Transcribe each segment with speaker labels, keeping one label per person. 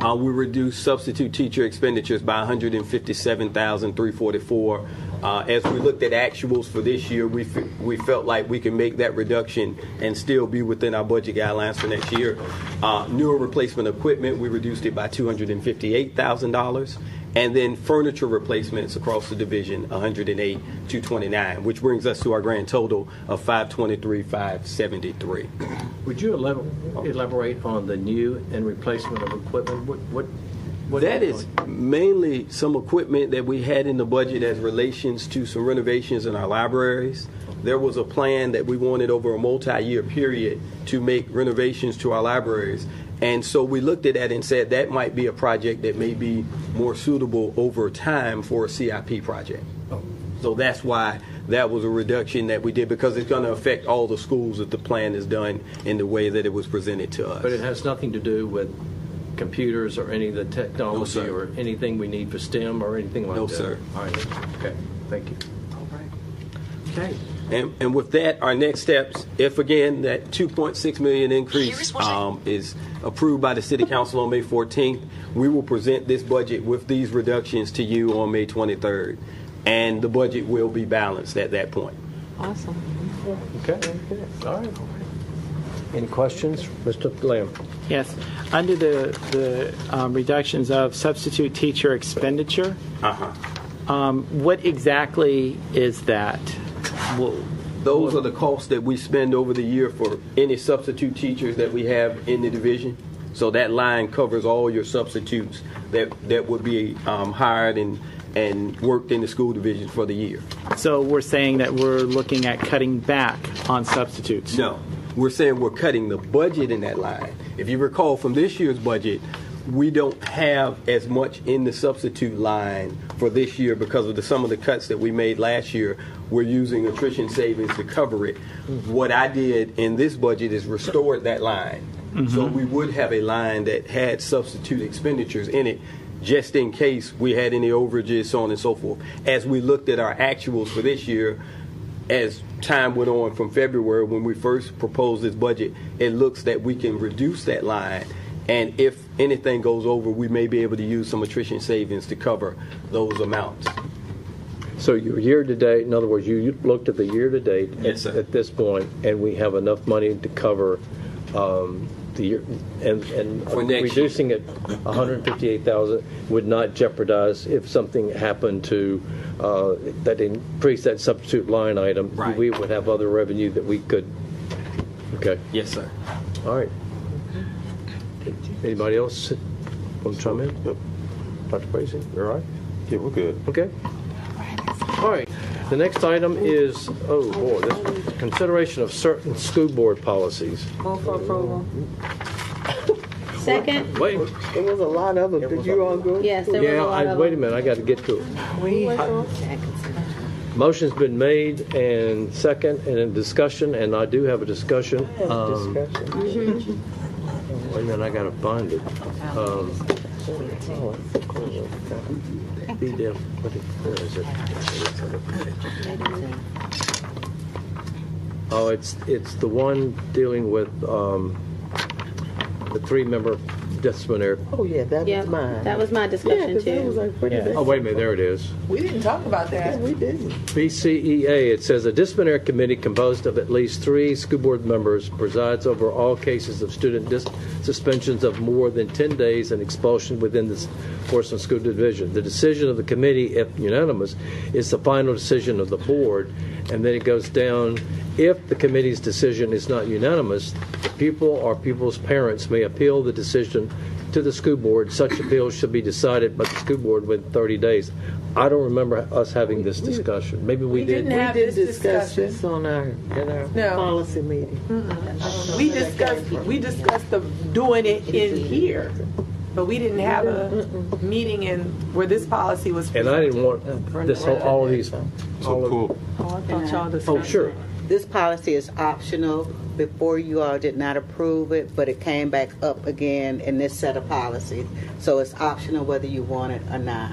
Speaker 1: Uh, we reduced substitute teacher expenditures by 157,344. Uh, as we looked at actuals for this year, we, fe- we felt like we can make that reduction and still be within our budget guidelines for next year. Uh, newer replacement equipment, we reduced it by $258,000. And then furniture replacements across the division, 108, 229, which brings us to our grand total of 523, 573.
Speaker 2: Would you elab- elaborate on the new and replacement of equipment? What, what? what-
Speaker 1: That is mainly some equipment that we had in the budget as relations to some renovations in our libraries. There was a plan that we wanted over a multi-year period to make renovations to our libraries. And so we looked at that and said that might be a project that may be more suitable over time for a CIP project.
Speaker 2: Oh.
Speaker 1: So that's why that was a reduction that we did because it's going to affect all the schools if the plan is done in the way that it was presented to us.
Speaker 2: But it has nothing to do with computers or any of the technology
Speaker 1: sir.
Speaker 2: or anything we need for STEM or anything like that?
Speaker 1: No, sir.
Speaker 2: All right, okay, thank you.
Speaker 3: Okay.
Speaker 1: And, and with that, our next steps, if again, that 2.6 million
Speaker 4: Here's
Speaker 1: increase
Speaker 4: what I-
Speaker 1: um, is approved by the city council on May 14th, we will present this budget with these reductions to you on May 23rd. And the budget will be balanced at that point.
Speaker 5: Awesome.
Speaker 2: Okay, all right. Any questions? Mr. Lamb?
Speaker 3: Yes. Under the, the um, reductions of substitute teacher expenditure, um, what exactly is that? Well,
Speaker 1: Those are the costs that we spend over the year for any substitute teachers that we have in the division. So that line covers all your substitutes that, that would be um, hired and, and worked in the school division for the year.
Speaker 3: So we're saying that we're looking at cutting back on substitutes?
Speaker 1: No, we're saying we're cutting the budget in that line. If you recall from this year's budget, we don't have as much in the substitute line for this year because of the, some of the cuts that we made last year. We're using attrition savings to cover it. What I did in this budget is restored that line. So we would have a line that had substitute expenditures in it just in case we had any overages, so on and so forth. As we looked at our actuals for this year, as time went on from February when we first proposed this budget, it looks that we can reduce that line. And if anything goes over, we may be able to use some attrition savings to cover those amounts.
Speaker 6: So your year-to-date, in other words, you- you looked at the year-to-date
Speaker 1: Yes, sir.
Speaker 6: at this point, and we have enough money to cover um, the year, and, and
Speaker 1: For next year.
Speaker 6: reducing it 158,000 would not jeopardize if something happened to, uh, that increase that substitute line item.
Speaker 1: Right.
Speaker 6: We would have other revenue that we could, okay,
Speaker 1: Yes, sir.
Speaker 6: all right. Anybody else want to chime in? Dr. Bracy, you all right?
Speaker 7: Yeah, we're good.
Speaker 6: Okay. All right, the next item is, oh boy, this consideration of certain school board policies.
Speaker 5: Move for approval. Second,
Speaker 6: Wait,
Speaker 8: There was a lot of them. Did you all go?
Speaker 5: yes, there was a
Speaker 6: yeah,
Speaker 5: lot
Speaker 6: I,
Speaker 5: of
Speaker 6: wait a
Speaker 5: them.
Speaker 6: minute, I gotta get to it.
Speaker 5: Wait.
Speaker 6: Motion's been made and second and in discussion, and I do have a discussion. Um,
Speaker 8: Discussion.
Speaker 6: Wait a minute, I gotta find it. Um, be there, what it- where is it? Oh, it's, it's the one dealing with um, the three-member disciplinary.
Speaker 8: Oh, yeah, that
Speaker 5: Yeah,
Speaker 8: was mine.
Speaker 5: that was my
Speaker 8: yeah,
Speaker 5: discussion
Speaker 8: 'cause I was
Speaker 5: too.
Speaker 8: like, what is
Speaker 6: Oh, wait a minute, there it is.
Speaker 9: We didn't talk about that.
Speaker 8: that? We didn't.
Speaker 6: BCEA, it says a disciplinary committee composed of at least three school board members presides over all cases of student dis- suspensions of more than 10 days and expulsion within the Portsmouth School Division. The decision of the committee, if unanimous, is the final decision of the board. And then it goes down, if the committee's decision is not unanimous, the pupil or pupil's parents may appeal the decision to the school board. Such appeals should be decided by the school board within 30 days. I don't remember us having this discussion. Maybe we
Speaker 9: We
Speaker 6: did.
Speaker 9: didn't have
Speaker 8: we did
Speaker 9: this
Speaker 8: discuss
Speaker 9: discussion.
Speaker 8: this on our, at our
Speaker 9: No.
Speaker 8: policy meeting.
Speaker 9: We discussed, we discussed the, doing it in here, but we didn't have a meeting in, where this policy was.
Speaker 6: And I didn't want this whole, all of these, all
Speaker 7: So
Speaker 6: of,
Speaker 7: cool.
Speaker 6: oh, sure.
Speaker 10: This policy is optional. Before you all did not approve it, but it came back up again in this set of policies. So it's optional whether you want it or not.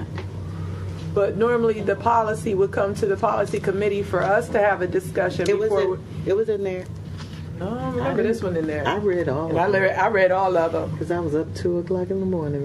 Speaker 9: But normally, the policy would come to the policy committee for us to have a discussion
Speaker 10: It was
Speaker 9: before.
Speaker 10: in, it was in there.
Speaker 9: we- I don't remember this one in
Speaker 8: I
Speaker 9: there.
Speaker 8: read all
Speaker 9: And I
Speaker 8: of them
Speaker 9: read, I read all of them.
Speaker 8: because I was up two o'clock in the morning